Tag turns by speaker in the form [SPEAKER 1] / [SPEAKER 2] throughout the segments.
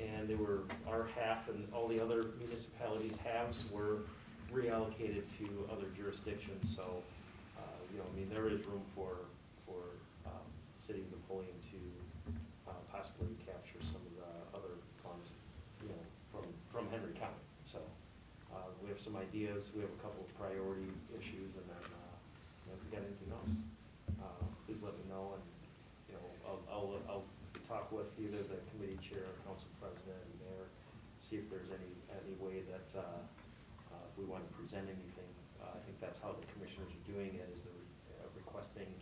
[SPEAKER 1] and they were, our half and all the other municipalities' halves were reallocated to other jurisdictions, so, uh, you know, I mean, there is room for, for, um, City of Napoleon to, uh, possibly capture some of the other funds, you know, from, from Henry County, so. Uh, we have some ideas, we have a couple of priority issues, and then, uh, you know, if you got anything else, uh, please let me know, and, you know, I'll, I'll, I'll talk with either the committee chair, or council president, and mayor, see if there's any, any way that, uh, uh, if we want to present anything. Uh, I think that's how the commissioners are doing it, is they're uh, requesting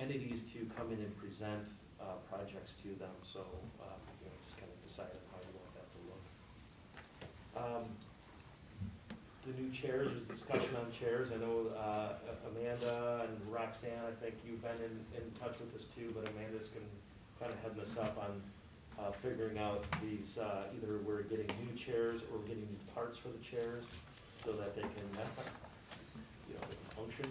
[SPEAKER 1] entities to come in and present, uh, projects to them, so, uh, you know, just kind of decide on how you want that to look. Um, the new chairs, there's discussion on chairs, I know, uh, Amanda and Roxanne, I think you've been in, in touch with this too, but Amanda's can kind of head this up on, uh, figuring out these, uh, either we're getting new chairs or getting new parts for the chairs, so that they can, uh, you know, function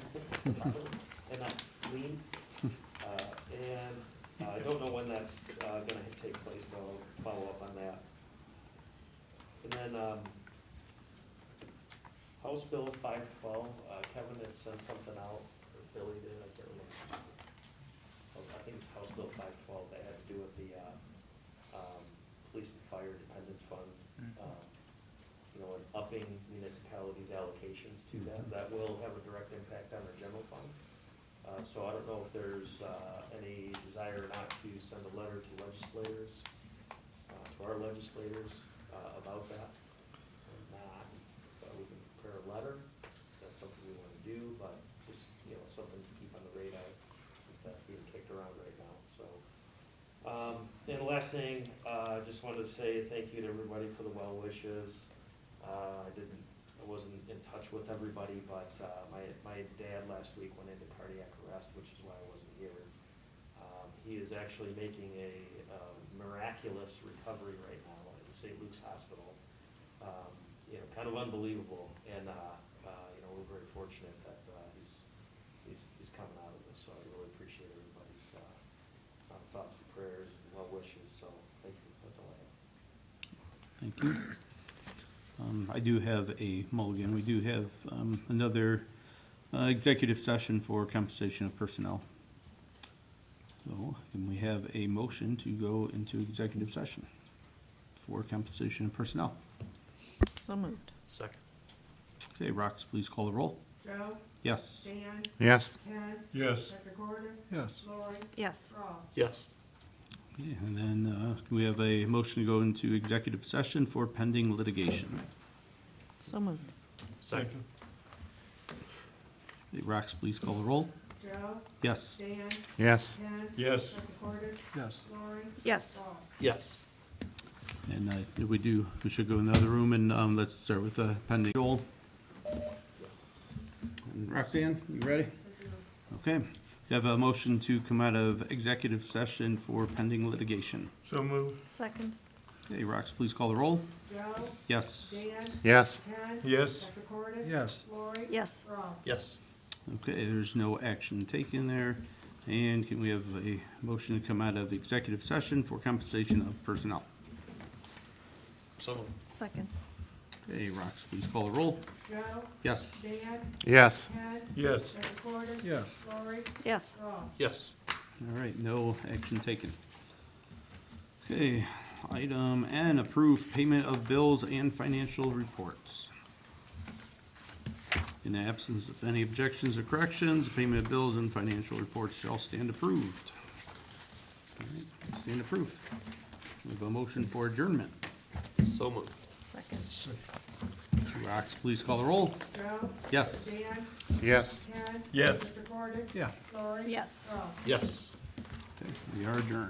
[SPEAKER 1] properly and not lean. Uh, and uh, I don't know when that's, uh, gonna take place, so I'll follow up on that. And then, um, House Bill five twelve, uh, Kevin had sent something out, or Billy did, I can't remember. Oh, I think it's House Bill five twelve, that had to do with the, uh, um, police and fire dependent fund, um, you know, and upping municipalities' allocations to that, that will have a direct impact on our general fund. Uh, so I don't know if there's, uh, any desire or not to send a letter to legislators, uh, to our legislators, uh, about that or not, but we can prepare a letter, that's something we wanna do, but just, you know, something to keep on the radar, since that's being kicked around right now, so. Um, and the last thing, uh, I just wanted to say thank you to everybody for the well wishes. Uh, I didn't, I wasn't in touch with everybody, but, uh, my, my dad last week went into cardiac arrest, which is why I wasn't here. Um, he is actually making a, um, miraculous recovery right now at the St. Luke's Hospital um, you know, kind of unbelievable. And, uh, uh, you know, we're very fortunate that, uh, he's, he's, he's coming out of this, so I really appreciate everybody's, uh, uh, thoughts and prayers and well wishes, so thank you, that's all I have.
[SPEAKER 2] Thank you. Um, I do have a mulligan. We do have um, another uh, executive session for compensation of personnel. So, and we have a motion to go into executive session for compensation of personnel.
[SPEAKER 3] So moved.
[SPEAKER 4] Second.
[SPEAKER 2] Okay, Rox, please call the roll.
[SPEAKER 5] Joe,
[SPEAKER 2] Yes.
[SPEAKER 5] Dan,
[SPEAKER 4] Yes.
[SPEAKER 5] Ken,
[SPEAKER 6] Yes.
[SPEAKER 5] Dr. Gordon,
[SPEAKER 6] Yes.
[SPEAKER 5] Lori,
[SPEAKER 3] Yes.
[SPEAKER 5] Ross.
[SPEAKER 4] Yes.
[SPEAKER 2] Okay, And then uh, we have a motion to go into executive session for pending litigation.
[SPEAKER 3] So moved.
[SPEAKER 4] Second.
[SPEAKER 2] Okay, Rox, please call the roll.
[SPEAKER 5] Joe,
[SPEAKER 2] Yes.
[SPEAKER 5] Dan,
[SPEAKER 4] Yes.
[SPEAKER 5] Ken.
[SPEAKER 6] Yes.
[SPEAKER 5] Dr. Gordon,
[SPEAKER 6] Yes.
[SPEAKER 5] Lori,
[SPEAKER 3] Yes.
[SPEAKER 5] Ross.
[SPEAKER 4] Yes.
[SPEAKER 2] And uh, we do, we should go in the other room and um, let's start with uh, pending. Joel? And Roxanne, you ready? Okay. Do you have a motion to come out of executive session for pending litigation?
[SPEAKER 6] So move.
[SPEAKER 3] Second.
[SPEAKER 2] Okay, Rox, please call the roll.
[SPEAKER 5] Joe,
[SPEAKER 2] Yes.
[SPEAKER 5] Dan,
[SPEAKER 4] Yes.
[SPEAKER 5] Ken.
[SPEAKER 6] Yes.
[SPEAKER 5] Dr. Gordon.
[SPEAKER 6] Yes.
[SPEAKER 5] Lori.
[SPEAKER 3] Yes.
[SPEAKER 5] Ross.
[SPEAKER 4] Yes.
[SPEAKER 2] Okay, there's no action taken there. And can we have a motion to come out of executive session for compensation of personnel?
[SPEAKER 4] So moved.
[SPEAKER 3] Second.
[SPEAKER 2] Okay, Rox, please call the roll.
[SPEAKER 5] Joe,
[SPEAKER 2] Yes.
[SPEAKER 5] Dan,
[SPEAKER 4] Yes.
[SPEAKER 5] Ken.
[SPEAKER 6] Yes.
[SPEAKER 5] Dr. Gordon.
[SPEAKER 6] Yes.
[SPEAKER 5] Lori,
[SPEAKER 3] Yes.
[SPEAKER 5] Ross.
[SPEAKER 4] Yes.
[SPEAKER 2] All right, no action taken. Okay, item N, approve payment of bills and financial reports. In the absence of any objections or corrections, payment of bills and financial reports shall stand approved. All right, Stand approved. We have a motion for adjournment.
[SPEAKER 4] So moved.
[SPEAKER 3] Second.
[SPEAKER 2] Rox, please call the roll.
[SPEAKER 5] Joe,
[SPEAKER 2] Yes.
[SPEAKER 5] Dan,
[SPEAKER 4] Yes.
[SPEAKER 5] Ken.
[SPEAKER 6] Yes.
[SPEAKER 5] Dr. Gordon.
[SPEAKER 6] Yeah.
[SPEAKER 5] Lori.
[SPEAKER 3] Yes.
[SPEAKER 5] Ross.
[SPEAKER 4] Yes.
[SPEAKER 2] Okay, We are adjourned.